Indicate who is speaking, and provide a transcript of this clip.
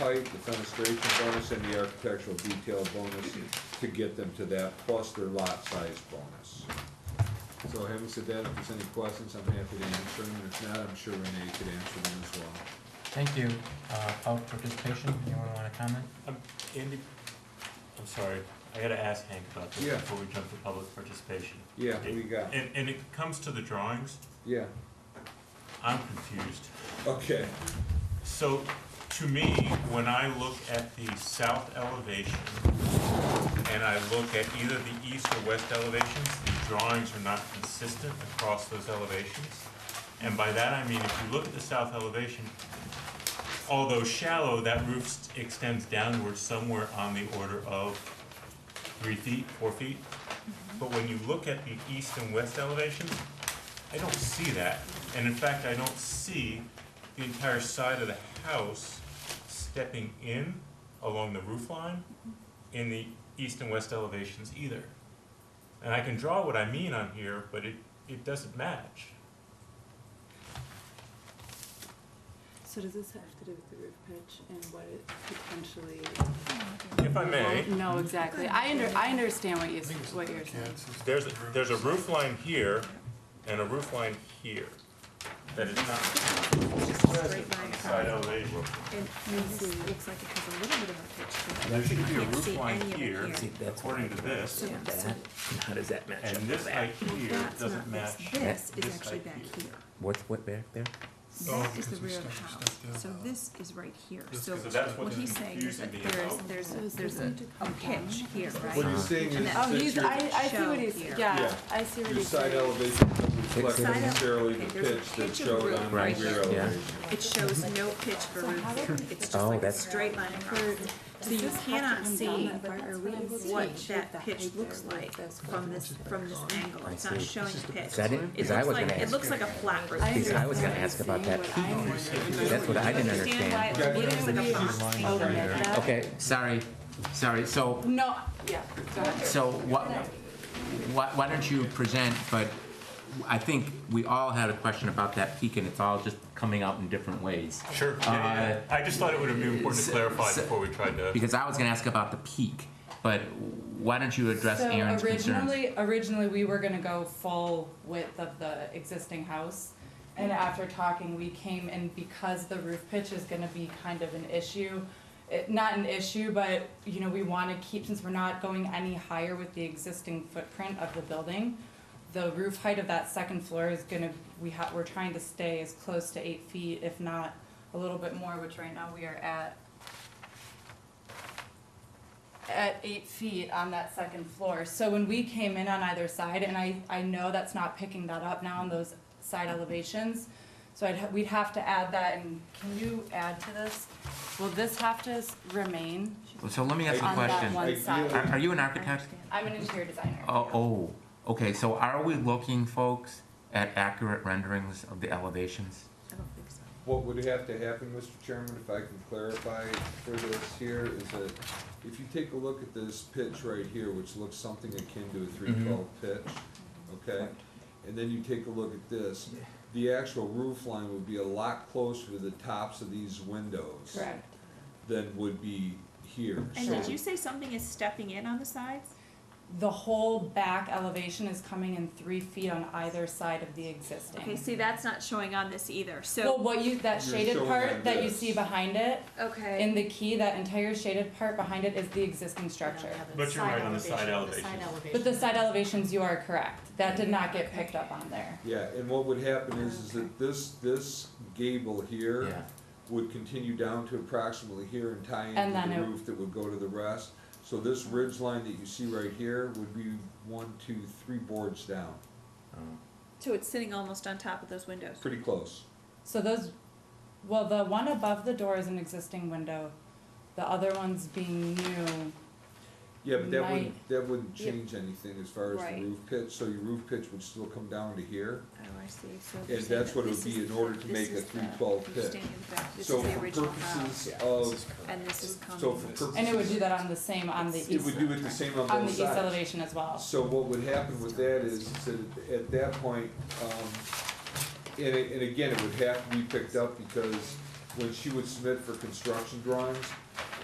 Speaker 1: site, the fenestration bonus, and the architectural detail bonus to get them to that, plus their lot size bonus. So having said that, if there's any questions, I'm happy to answer them, if not, I'm sure Renee could answer them as well.
Speaker 2: Thank you, uh, public participation, anyone wanna comment?
Speaker 3: Um, Andy, I'm sorry, I gotta ask Hank about this
Speaker 1: Yeah.
Speaker 3: before we jump to public participation.
Speaker 1: Yeah, what do you got?
Speaker 3: And, and it comes to the drawings,
Speaker 1: Yeah,
Speaker 3: I'm confused.
Speaker 1: okay,
Speaker 3: So, to me, when I look at the south elevation, and I look at either the east or west elevations, the drawings are not consistent across those elevations. And by that, I mean, if you look at the south elevation, although shallow, that roof s- extends downward somewhere on the order of three feet, four feet. But when you look at the east and west elevations, I don't see that. And in fact, I don't see the entire side of the house stepping in along the roof line in the east and west elevations either. And I can draw what I mean on here, but it, it doesn't match.
Speaker 4: So does this have to do with the roof pitch and what it potentially?
Speaker 3: If I may,
Speaker 4: No, exactly. I under, I understand what you, what you're saying.
Speaker 3: there's, a- there's a roof line here and a roof line here that is not present on the side elevation.
Speaker 5: And this looks like it has a little bit of a pitch.
Speaker 3: There should be a
Speaker 5: Can't
Speaker 3: roof
Speaker 5: see
Speaker 3: line
Speaker 5: any of it
Speaker 3: here,
Speaker 5: here.
Speaker 3: according to this,
Speaker 5: Yeah, so
Speaker 6: That, and how does that match
Speaker 3: and
Speaker 6: up with
Speaker 3: this
Speaker 6: that?
Speaker 3: height here
Speaker 5: That's
Speaker 3: doesn't
Speaker 5: not
Speaker 3: match
Speaker 5: this, this
Speaker 3: this
Speaker 5: is actually
Speaker 3: height
Speaker 5: back
Speaker 3: here.
Speaker 5: here.
Speaker 6: What's, what, back there?
Speaker 5: That is the
Speaker 7: because we
Speaker 5: rear of the
Speaker 7: stuck-
Speaker 5: house,
Speaker 7: stuck the,
Speaker 5: so
Speaker 7: uh,
Speaker 5: this is right here, so
Speaker 3: So that's
Speaker 5: what
Speaker 3: what's
Speaker 5: he's saying is
Speaker 3: confusing
Speaker 5: that
Speaker 3: me
Speaker 5: there's,
Speaker 3: about.
Speaker 5: there's,
Speaker 4: So is
Speaker 5: there's
Speaker 4: this
Speaker 5: a,
Speaker 4: into
Speaker 5: a
Speaker 4: combine?
Speaker 5: pitch here,
Speaker 1: what
Speaker 5: right?
Speaker 1: he's saying is
Speaker 5: Oh,
Speaker 4: Oh,
Speaker 1: that
Speaker 4: he's,
Speaker 1: your,
Speaker 4: I, I see what he's,
Speaker 5: Show here.
Speaker 1: Yeah.
Speaker 4: yeah, I see what
Speaker 1: your
Speaker 4: he's
Speaker 1: side
Speaker 4: saying.
Speaker 1: elevation doesn't reflect
Speaker 6: Side
Speaker 5: ele-
Speaker 1: necessarily
Speaker 5: okay,
Speaker 1: the
Speaker 5: there's a
Speaker 1: pitch that
Speaker 5: pitch of
Speaker 1: showed
Speaker 5: roof
Speaker 1: on the
Speaker 6: right
Speaker 1: rear
Speaker 6: here. Yeah.
Speaker 1: elevation.
Speaker 5: It shows no pitch for roof, it's just
Speaker 6: Oh,
Speaker 5: like a
Speaker 6: that's-
Speaker 5: straight line across. So
Speaker 4: Does
Speaker 5: you
Speaker 4: this have to
Speaker 5: cannot
Speaker 4: come
Speaker 5: see
Speaker 4: down that far? Are we able to
Speaker 5: what
Speaker 4: see
Speaker 5: that
Speaker 4: height
Speaker 5: pitch
Speaker 4: there
Speaker 5: looks
Speaker 4: with
Speaker 5: like
Speaker 4: this
Speaker 5: from this, from this angle,
Speaker 6: I
Speaker 5: it's
Speaker 6: see.
Speaker 5: not showing a pitch.
Speaker 6: Is that it?
Speaker 5: It
Speaker 6: Because I
Speaker 5: looks
Speaker 6: was
Speaker 5: like,
Speaker 6: gonna
Speaker 5: it
Speaker 6: ask,
Speaker 5: looks like a flat roof.
Speaker 4: I
Speaker 6: because I was gonna ask
Speaker 4: understand
Speaker 6: about that
Speaker 4: what I'm wondering.
Speaker 6: that's what I didn't understand.
Speaker 5: why it
Speaker 4: Wouldn't
Speaker 5: looks like
Speaker 4: we
Speaker 5: a box.
Speaker 4: overlook that?
Speaker 6: Okay, sorry, sorry, so,
Speaker 4: No, yeah, go ahead.
Speaker 6: so what, why, why don't you present, but I think we all had a question about that peak and it's all just coming out in different ways.
Speaker 3: Sure, yeah, yeah, yeah. I just thought it would have been important to
Speaker 6: so-
Speaker 3: clarify
Speaker 6: so-
Speaker 3: before we tried to,
Speaker 6: Because I was gonna ask about the peak, but why don't you address
Speaker 8: So
Speaker 6: Aaron's concerns?
Speaker 8: originally, originally, we were gonna go full width of the existing house. And after talking, we came and because the roof pitch is gonna be kind of an issue, it, not an issue, but, you know, we wanna keep, since we're not going any higher with the existing footprint of the building, the roof height of that second floor is gonna, we ha, we're trying to stay as close to eight feet, if not a little bit more, which right now we are at at eight feet on that second floor. So when we came in on either side, and I, I know that's not picking that up now on those side elevations, so I'd, ha- we'd have to add that, and can you add to this? Will this have to s- remain
Speaker 6: So let me ask a
Speaker 8: on that
Speaker 6: question.
Speaker 8: one
Speaker 6: Are,
Speaker 8: side?
Speaker 6: are you an
Speaker 5: I
Speaker 6: architect?
Speaker 5: understand.
Speaker 8: I'm an interior designer.
Speaker 6: Oh, oh, okay, so are we looking, folks, at accurate renderings of the elevations?
Speaker 5: I don't think so.
Speaker 1: What would have to happen, Mr. Chairman, if I can clarify for this here, is that if you take a look at this pitch right here, which looks something akin to a three twelve pitch, okay? And then you take a look at this, the actual roof line would be a lot closer to the tops of these windows
Speaker 8: Correct.
Speaker 1: than would be here.
Speaker 5: And
Speaker 1: So
Speaker 5: did you say something is stepping in on the sides?
Speaker 8: The whole back elevation is coming in three feet on either side of the existing.
Speaker 5: Okay, see, that's not showing on this either,
Speaker 8: Well,
Speaker 5: so,
Speaker 8: what you, that
Speaker 1: You're
Speaker 8: shaded
Speaker 1: showing on
Speaker 8: part that you
Speaker 1: this.
Speaker 8: see behind it,
Speaker 5: okay.
Speaker 8: in the key, that entire shaded part behind it is the existing structure.
Speaker 3: but you're right on the side elevation.
Speaker 8: But the side elevations, you are correct. That did not get picked up on there.
Speaker 1: Yeah, and what would happen is, is that this, this gable here. would continue down to approximately here and tie
Speaker 8: And
Speaker 1: into
Speaker 8: then
Speaker 1: the
Speaker 8: it-
Speaker 1: roof that would go to the rest. So this ridge line that you see right here would be one, two, three boards down,
Speaker 5: So it's sitting almost on top of those windows.
Speaker 1: pretty close.
Speaker 8: So those, well, the one above the door is an existing window. The other one's being new.
Speaker 1: Yeah, but that wouldn't,
Speaker 8: Right.
Speaker 1: that wouldn't
Speaker 5: Yeah.
Speaker 1: change anything as far as
Speaker 5: Right.
Speaker 1: the roof pitch, so your roof pitch would still come down to here.
Speaker 5: Oh, I see, so.
Speaker 1: Yeah,
Speaker 5: they're saying
Speaker 1: that's
Speaker 5: that
Speaker 1: what it
Speaker 5: this
Speaker 1: would be
Speaker 5: is
Speaker 1: in order
Speaker 5: the-
Speaker 1: to
Speaker 5: this
Speaker 1: make a
Speaker 5: is the-
Speaker 1: 312
Speaker 5: you're
Speaker 1: pitch.
Speaker 5: staying in the back. This
Speaker 1: So
Speaker 5: is the
Speaker 1: for
Speaker 5: original house,
Speaker 1: purposes of,
Speaker 5: And this is coming.
Speaker 1: so for purposes.
Speaker 8: And it would do that on the same, on the east,
Speaker 1: It would do it the same on
Speaker 8: on the
Speaker 1: both
Speaker 8: east
Speaker 1: sides.
Speaker 8: elevation as well.
Speaker 1: So what would happen with that is, is that at that point, um, and, it- and again, it would have to be picked up because when she would submit for construction drawings,